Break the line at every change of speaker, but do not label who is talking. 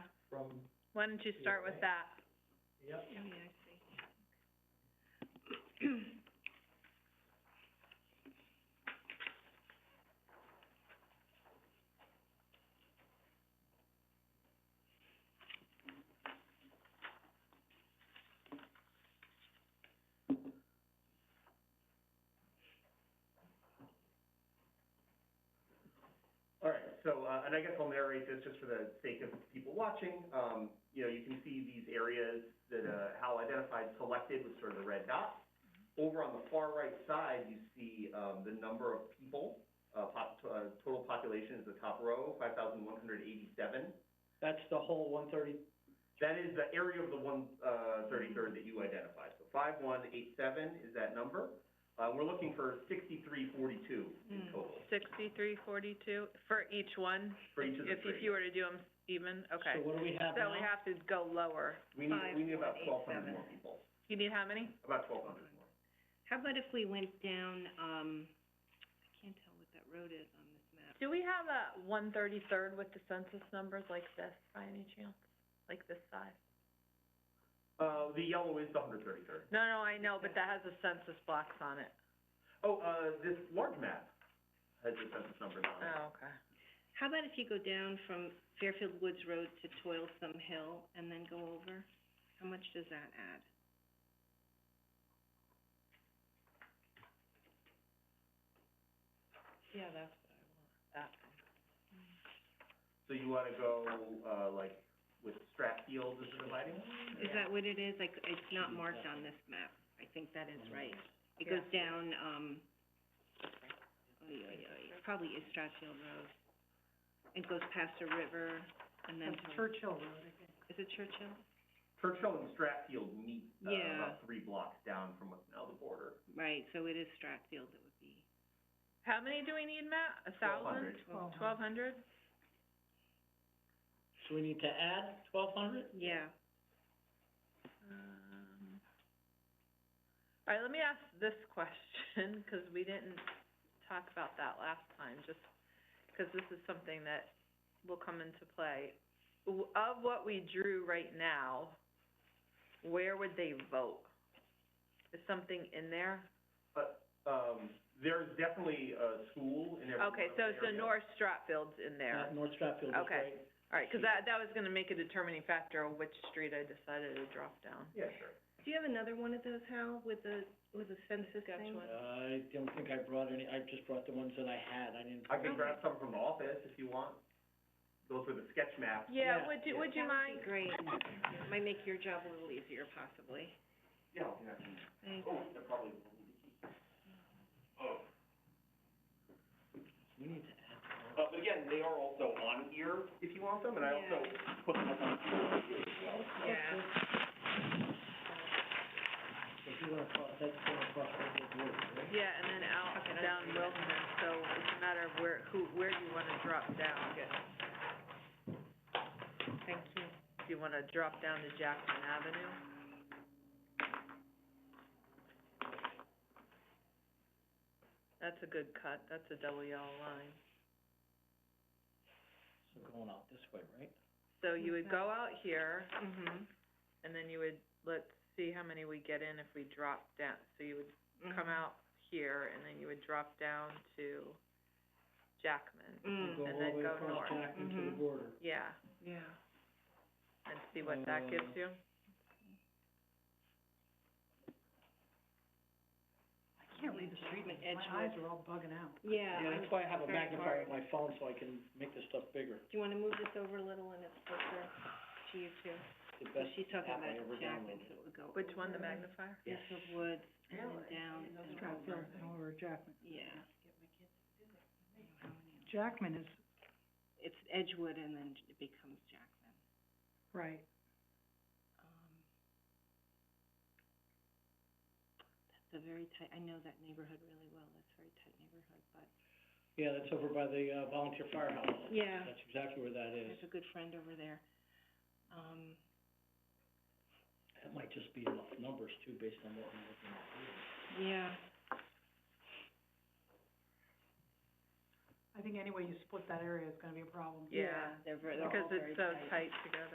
from,
Why don't you start with that?
yep,
Oh, yeah, I see.
All right, so, uh, and I guess I'll narrate this just for the sake of people watching. Um, you know, you can see these areas that, uh, Hal identified selected with sort of the red dots. Over on the far right side, you see, um, the number of people, uh, pop, uh, total population is the top row, five thousand one hundred eighty-seven.
that's the whole one thirty,
That is the area of the one, uh, thirty-third that you identified. So five one eight seven is that number. Uh, we're looking for sixty-three forty-two in
Mm.
total
Sixty-three forty-two for each one?
for each of the
If, if
three.
you were to do them even,
so
okay.
what do we have
So
now?
we have to go lower.
We need, we need about twelve hundred
5187.
more people,
You need how many?
about twelve hundred more.
How about if we went down, um, I can't tell what that road is on this map.
Do we have a one thirty-third with the census numbers like this by any chance? Like this size?
Uh, the yellow is the hundred thirty-third.
No, no, I know, but that has the census blocks on it.
Oh, uh, this large map has the census numbers on it.
Oh, okay.
How about if you go down from Fairfield Woods Road to Toilsome Hill and then go over? How much does that add?
Yeah, that's what I want, that one.
So you wanna go, uh, like, with Stratfield as the dividing line?
Is that what it is? Like, it's not marked on this map. I think that is right. It goes down, um, oh, oy, oy, oy, it probably is Strathfield Road. It goes past a river and then to-
Churchill Road, I think.
is it Churchill?
Churchill and Stratfield meet, uh,
Yeah.
about three blocks down from what's now the border.
Right, so it is Strathfield that would be.
How many do we need, Matt? A thousand?
1,200.
Twelve
Twelve hundred?
So we need to add twelve hundred?
Yeah.
Um, all right, let me ask this question, 'cause we didn't talk about that last time, just 'cause this is something that will come into play. W- Of what we drew right now, where would they vote? Is something in there?
Um, there's definitely a school in every one of
Okay,
the areas.
so it's the North Stratfield's in there.
North Stratfield is right.
Okay. All right, 'cause that, that was gonna make a determining factor of which street I decided to drop down.
Yeah, sure.
Do you have another one of those, Hal, with the, with the census thing?
Saskatchewan.
I don't think I brought any, I just brought the ones that I had, I didn't.
I can grab some from the office if you want. Those were the sketch maps.
Yeah,
Yeah,
would you,
yeah.
would you mind?
That would be great. It Might make your job a little easier possibly.
Yeah, I'll do that.
Thanks.
Oh, they're probably,
Oh. We need to add,
uh, but again, they are also on here if you want them, and I also put them up on here as well.
Yeah.
if you wanna cross, that's gonna cross over the road, right?
Yeah, and then out, down Wilson, so it's a matter of where, who, where do you wanna drop down? Thank you. Do you wanna drop down to Jackson Avenue? That's a good cut, that's a double yellow line.
So going out this way, right?
So you would go out here,
Mm-hmm.
and then you would, let's see how many we get in if we drop down, so you would come out here, and then you would drop down to Jackman.
You go
Mm,
all
And
the
then
way
go
across
north.
Jackman to the
Mm-hmm.
Mhm.
border.
Yeah,
yeah.
and see what that gives
Uh,
you.
I can't read the street in Edgewood.
are all bugging out.
Yeah.
Yeah, that's why I have a
very hard.
magnifier on my phone, so I can make this stuff bigger,
Do you wanna move this over a little and it's closer to you too?
the
So
best
she's talking
app I
about
ever
Jackman,
downloaded.
so it would go
Which one, the
over
magnifier?
Yes.
into the woods and then down and over.
over Jackman.
Yeah. Jackman is. It's Edgewood and then it becomes Jackman.
Right.
Um, That's a very tight, I know that neighborhood really well, that's a very tight neighborhood, but.
Yeah, that's over by the, uh, volunteer firehouse.
Yeah.
That's exactly where that
I
is.
have a good friend over there. Um,
That might just be enough numbers too, based on what I'm looking at here.
yeah.
Yeah,
They're ver- they're all
because
very
it's so tight together.